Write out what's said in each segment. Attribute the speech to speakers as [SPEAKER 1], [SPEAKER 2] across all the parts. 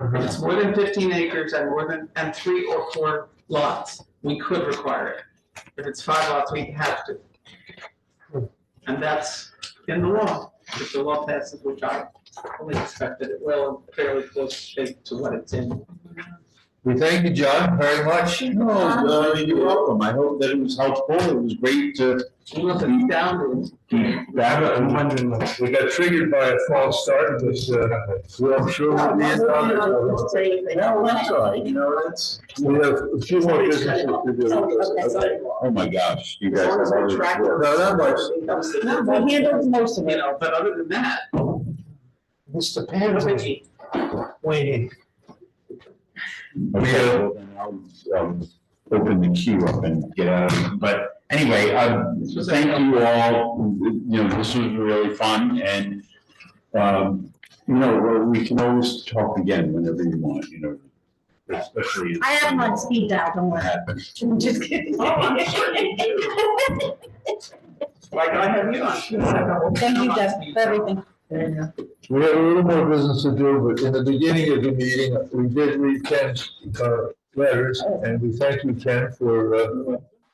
[SPEAKER 1] Uh-huh.
[SPEAKER 2] If it's more than fifteen acres and more than, and three or four lots, we could require it. If it's five lots, we have to. And that's in the law, if the law passes, which I fully expect that it will, fairly close shape to what it's in.
[SPEAKER 3] We thank you, John, very much.
[SPEAKER 4] No, uh,
[SPEAKER 3] you're welcome. I hope that it was helpful. It was great to.
[SPEAKER 2] We want it down,
[SPEAKER 1] I'm wondering, we got triggered by a false start, this, uh, well, sure. we'll
[SPEAKER 4] No,
[SPEAKER 1] be in on it.
[SPEAKER 4] No,
[SPEAKER 3] that's all right. You know, that's.
[SPEAKER 1] We have a few more businesses to do.
[SPEAKER 3] Oh, my gosh, you
[SPEAKER 4] As
[SPEAKER 3] guys.
[SPEAKER 4] long as we're tracking.
[SPEAKER 3] No, not much.
[SPEAKER 4] No, we handled most
[SPEAKER 2] you
[SPEAKER 4] of it.
[SPEAKER 2] know, but other than that,
[SPEAKER 5] Mr.
[SPEAKER 2] what
[SPEAKER 5] Pan
[SPEAKER 2] do we
[SPEAKER 5] was
[SPEAKER 2] need?
[SPEAKER 5] waiting.
[SPEAKER 3] Okay, well, then I'll, um, open the queue up and get out of it. But anyway, um, thank you all. You know, this was really fun and, um, you know, well, we can always talk again whenever you want, you know. Especially.
[SPEAKER 4] I have him on speed dial, don't worry.
[SPEAKER 3] Happens.
[SPEAKER 4] I'm just kidding. Thank
[SPEAKER 2] Like I have you on.
[SPEAKER 4] you, Jeff, for everything.
[SPEAKER 1] We have a little more business to do, but in the beginning of the meeting, we did read Ken's, uh, letters, and we thank you, Ken, for, uh,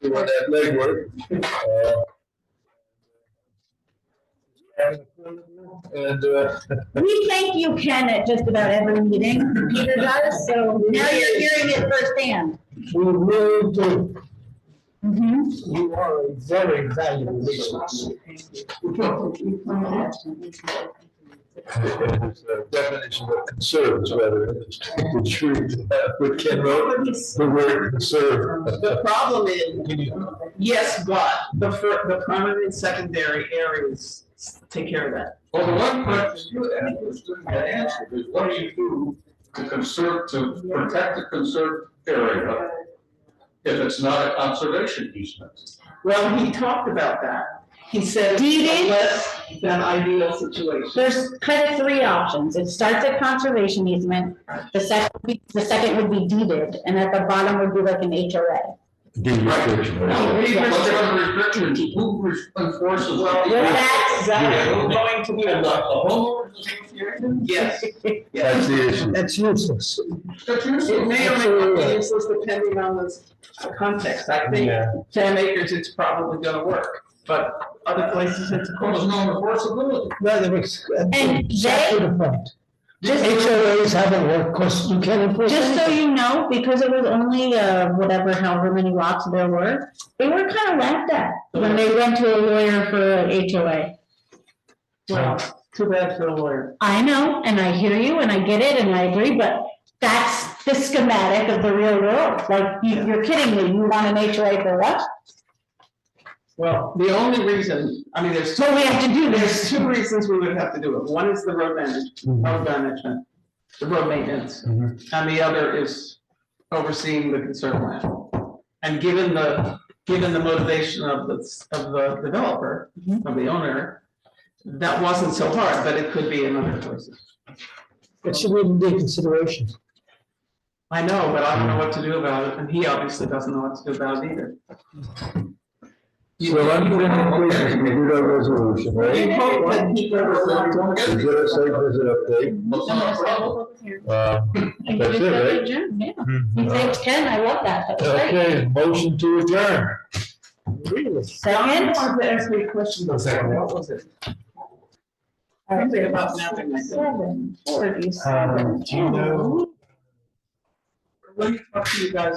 [SPEAKER 1] doing that legwork. Uh, And, uh,
[SPEAKER 4] We thank you, Ken, at just about every meeting. Peter does, so now you're hearing it firsthand.
[SPEAKER 5] We really do.
[SPEAKER 4] Mhm.
[SPEAKER 5] You are a very valuable resource.
[SPEAKER 1] it was a definition of conserves, rather, than the truth, uh, what Ken wrote, the word conserve.
[SPEAKER 2] The problem is, yes, but the fir, the primary and secondary areas take care of that.
[SPEAKER 6] Well, the one question you asked was still not answered, is what do you do to conserve, to protect a conserved area if it's not a conservation easement?
[SPEAKER 2] Well, he talked about that. He said
[SPEAKER 4] Deeding?
[SPEAKER 2] a less than ideal situation.
[SPEAKER 4] There's kind of three options. It starts at conservation easement, the second, the second would be deeded, and at the bottom would be like an HOA.
[SPEAKER 6] Now, what are the restrictions, who enforces
[SPEAKER 4] Well,
[SPEAKER 6] that?
[SPEAKER 4] that's-
[SPEAKER 2] Exactly.
[SPEAKER 6] going to be a homeowners association?
[SPEAKER 2] Yes,
[SPEAKER 1] That's
[SPEAKER 2] yes.
[SPEAKER 1] the issue.
[SPEAKER 5] That's useless.
[SPEAKER 6] That's useless.
[SPEAKER 2] It may or may not be useless depending on the context. I think ten acres, it's probably gonna work, but other places, it's.
[SPEAKER 6] Well, there's no enforceability.
[SPEAKER 5] Rather, it's.
[SPEAKER 4] And
[SPEAKER 5] Exactly the point. HOAs haven't worked, because you can't enforce
[SPEAKER 4] Just so
[SPEAKER 5] anything.
[SPEAKER 4] you know, because it was only, uh, whatever, however many lots there were, they were kind of laughed at when they went to a lawyer for an HOA.
[SPEAKER 2] Well, too bad for the lawyer.
[SPEAKER 4] I know, and I hear you, and I get it, and I agree, but that's the schematic of the real world. Like, you- you're kidding me, you want an HOA for what?
[SPEAKER 2] Well, the only reason, I mean, there's two,
[SPEAKER 4] So we have to do
[SPEAKER 2] there's
[SPEAKER 4] this.
[SPEAKER 2] two reasons we would have to do it. One is the road management, road management, the road maintenance.
[SPEAKER 5] Mhm.
[SPEAKER 2] And the other is overseeing the conserve land. And given the, given the motivation of the, of the developer,
[SPEAKER 4] Mhm.
[SPEAKER 2] of the owner, that wasn't so hard, but it could be in other places.
[SPEAKER 5] It should be in consideration.
[SPEAKER 2] I know, but I don't know what to do about it, and he obviously doesn't know what to do about it either.
[SPEAKER 1] So I'm going to we did our resolution, right? We did a site visit update. Uh,
[SPEAKER 4] And
[SPEAKER 1] That's
[SPEAKER 4] give
[SPEAKER 1] it,
[SPEAKER 4] that
[SPEAKER 1] right?
[SPEAKER 4] to Jim, yeah. You thanks, Ken, I love that, that's great.
[SPEAKER 1] Okay, motion to adjourn.
[SPEAKER 5] Really?
[SPEAKER 2] I
[SPEAKER 4] Second?
[SPEAKER 2] wanted to ask me a question, though,
[SPEAKER 5] Second.
[SPEAKER 2] what was it? Something about nothing, I think.
[SPEAKER 4] Seven, forty-seven.
[SPEAKER 5] Um, do you know?
[SPEAKER 2] Let me talk to you guys